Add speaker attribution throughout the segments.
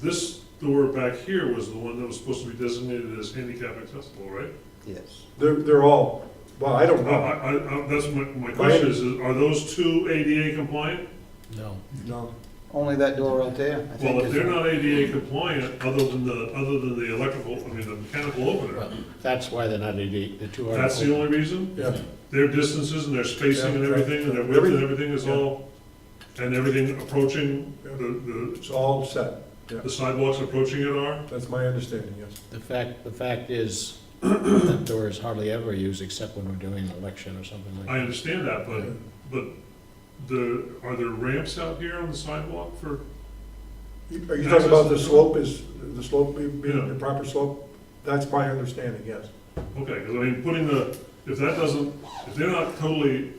Speaker 1: This door back here was the one that was supposed to be designated as handicap accessible, right?
Speaker 2: Yes.
Speaker 3: They're, they're all, well, I don't
Speaker 1: I,
Speaker 3: know.
Speaker 1: I, I- that's my, my question is, is, are those two ADA compliant?
Speaker 4: No.
Speaker 3: No.
Speaker 2: Only that door right there, I think
Speaker 1: Well, if they're
Speaker 2: is,
Speaker 1: not ADA compliant, other than the, other than the electrical, I mean, the mechanical opener,
Speaker 4: That's why they're not eighty, the two are.
Speaker 1: that's the only reason?
Speaker 3: Yeah,
Speaker 1: Their distances and their spacing and
Speaker 3: Yeah, right.
Speaker 1: everything, and their width and everything
Speaker 3: Everything.
Speaker 1: is all, and everything approaching, the, the,
Speaker 3: it's all set.
Speaker 1: the sidewalks approaching it are?
Speaker 3: That's my understanding, yes.
Speaker 4: The fact, the fact is, that door is hardly ever used except when we're doing an election or something like
Speaker 1: I
Speaker 4: that.
Speaker 1: understand that, but, but the, are there ramps out here on the sidewalk for,
Speaker 3: You- Are you talking about the slope is, the slope being being the
Speaker 1: Yeah.
Speaker 3: proper slope? That's my understanding, yes.
Speaker 1: okay, because I mean, putting the, if that doesn't, if they're not totally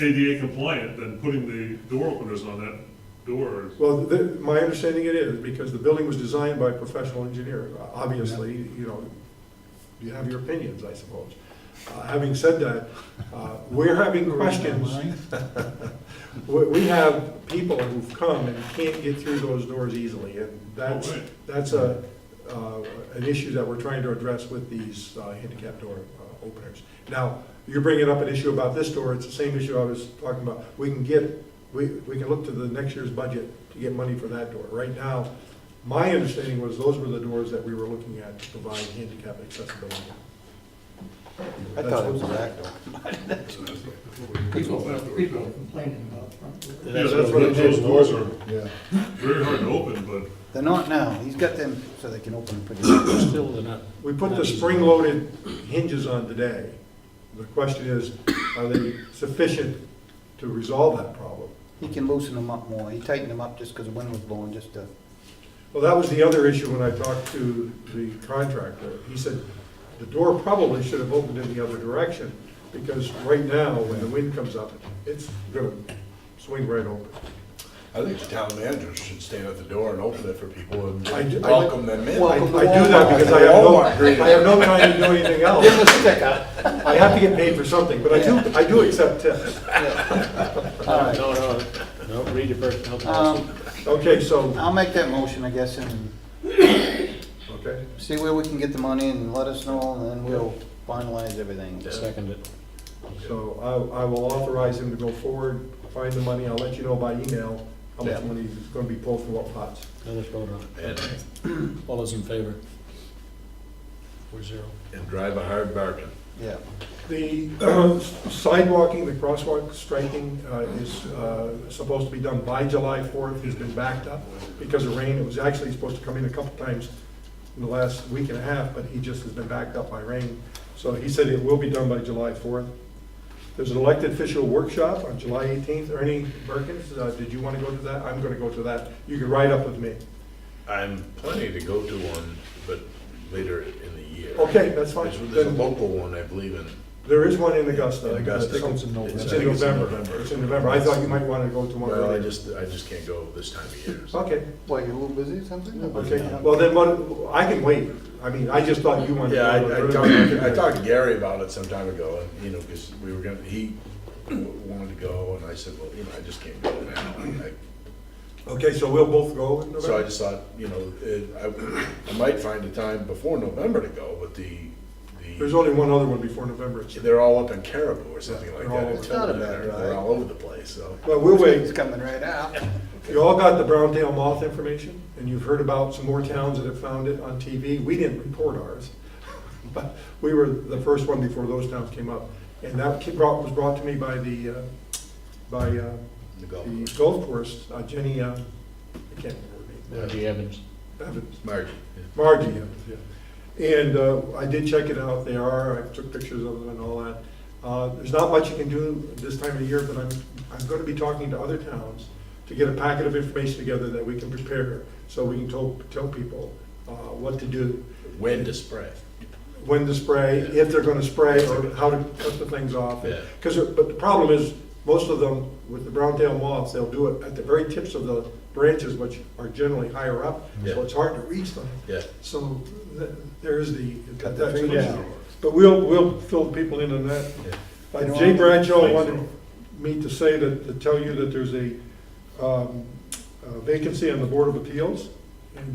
Speaker 1: ADA compliant, then putting the door openers on that door is
Speaker 3: Well, the, my understanding it is, because the building was designed by a professional engineer. Obviously, you know, you have your opinions, I suppose. Uh, Having said that, uh, we're having questions. We, we have people who've come and can't get through those doors easily, and that's,
Speaker 1: Oh, right.
Speaker 3: that's a, uh, an issue that we're trying to address with these uh, handicap door uh, openers. Now, you're bringing up an issue about this door, it's the same issue I was talking about. We can get, we, we can look to the next year's budget to get money for that door. Right now, my understanding was those were the doors that we were looking at to provide handicap accessibility.
Speaker 2: I thought it was the back door.
Speaker 5: People, people complaining about the front door.
Speaker 1: Yeah,
Speaker 4: what
Speaker 1: that's
Speaker 4: we
Speaker 1: what,
Speaker 4: did.
Speaker 1: those doors are
Speaker 3: Yeah.
Speaker 1: very hard to open, but
Speaker 2: They're not now, he's got them so they can open pretty much.
Speaker 4: Still, they're not.
Speaker 3: We put
Speaker 4: not
Speaker 3: the
Speaker 4: used.
Speaker 3: spring-loaded hinges on today. The question is, are they sufficient to resolve that problem?
Speaker 2: He can loosen them up more, he tightened them up just because the wind was blowing, just to,
Speaker 3: Well, that was the other issue when I talked to the contractor. He said, the door probably should have opened in the other direction, because right now, when the wind comes up, it's gonna swing right open.
Speaker 6: I think the town manager should stand at the door and open it for people and
Speaker 3: I do- I-
Speaker 6: welcome them in.
Speaker 3: I I do that because I have no, I have no time to do anything else. I have to get paid for something, but I do, I do accept tips.
Speaker 2: all right.
Speaker 4: No, no, no, read your first, no,
Speaker 2: Um,
Speaker 3: Okay, so,
Speaker 2: I'll make that motion, I guess, and
Speaker 3: okay.
Speaker 2: see where we can get the money and let us know, and then we'll finalize everything.
Speaker 4: second it.
Speaker 3: So I, I will authorize him to go forward, find the money, I'll let you know by email how much
Speaker 2: Yeah.
Speaker 3: money is gonna be pulled from what pots.
Speaker 4: Now let's vote on it. All those in favor? Four zero.
Speaker 6: And drive a hard bargain.
Speaker 2: Yeah,
Speaker 3: The uh, sidewalking, the crosswalk striking uh, is uh, supposed to be done by July fourth, it's been backed up because of rain, it was actually supposed to come in a couple times in the last week and a half, but he just has been backed up by rain, so he said it will be done by July fourth. There's an elected official workshop on July eighteenth, Ernie Perkins, uh, did you want to go to that? I'm gonna go to that, you can ride up with me.
Speaker 6: I'm planning to go to one, but later in the year.
Speaker 3: Okay, that's fine.
Speaker 6: There's there's a
Speaker 3: Then-
Speaker 6: local one, I believe, in
Speaker 3: There is one in Augusta.
Speaker 6: In Augusta.
Speaker 3: It's
Speaker 6: It's in
Speaker 3: in- It's in
Speaker 6: November.
Speaker 3: November, it's in November, I thought you might want to go Oh. to one.
Speaker 6: well, I
Speaker 3: earlier.
Speaker 6: just, I just can't go this time of year. so-
Speaker 3: Okay.
Speaker 2: why, you're a little busy or something?
Speaker 3: Okay, well then, what, I can wait. I mean, I just thought you wanted. to
Speaker 6: Yeah, I, I
Speaker 3: go to-
Speaker 6: talked, I talked to Gary about it some time ago, and, you know, because we were gonna, he wanted to go, and I said, well, you know, I just can't go now. and I-
Speaker 3: Okay, so we'll both go in
Speaker 6: So
Speaker 3: November?
Speaker 6: I just thought, you know, it, I, I might find a time before November to go, but the,
Speaker 3: There's
Speaker 6: the,
Speaker 3: only one other one before November. It's-
Speaker 6: they're all up in Caribou or something like
Speaker 3: They're all
Speaker 6: that.
Speaker 3: over.
Speaker 6: Until
Speaker 2: Not a
Speaker 6: then,
Speaker 2: bad
Speaker 6: They're
Speaker 2: drive.
Speaker 6: they're all over the place, so.
Speaker 3: Well, we'll
Speaker 2: It's
Speaker 3: wait.
Speaker 2: coming right out.
Speaker 3: You all got the brown tail moth information, and you've heard about some more towns that have found it on TV. We didn't report ours, but we were the first one before those towns came up. And that ki- brought, was brought to me by the, uh, by uh,
Speaker 6: The golf
Speaker 3: the
Speaker 6: course.
Speaker 3: golf course, uh, Jenny, uh, I can't remember her name.
Speaker 4: Margie Evans.
Speaker 3: Evans.
Speaker 6: Margie,
Speaker 3: Margie, yeah, yeah. And uh, I did check it out, they are, I took pictures of them and all that. Uh, There's not much you can do this time of year, but I'm, I'm gonna be talking to other towns to get a packet of information together that we can prepare, so we can tell, tell people uh, what to do,
Speaker 6: when to spray.
Speaker 3: when to spray, if they're gonna spray, or how to cut the things off.
Speaker 6: Yeah.
Speaker 3: Because, but the problem is, most of them, with the brown tail moths, they'll do it at the very tips of the branches, which are generally higher up,
Speaker 6: Yeah.
Speaker 3: so it's hard to reach them.
Speaker 6: Yeah,
Speaker 3: So th- there is the,
Speaker 2: Cut the
Speaker 3: that's
Speaker 2: trees
Speaker 3: what-
Speaker 2: down.
Speaker 3: but we'll, we'll fill people in on that.
Speaker 6: yeah.
Speaker 3: Uh, Jay Bradshaw wanted me to say that, to tell you that there's a um, uh, vacancy on the Board of Appeals.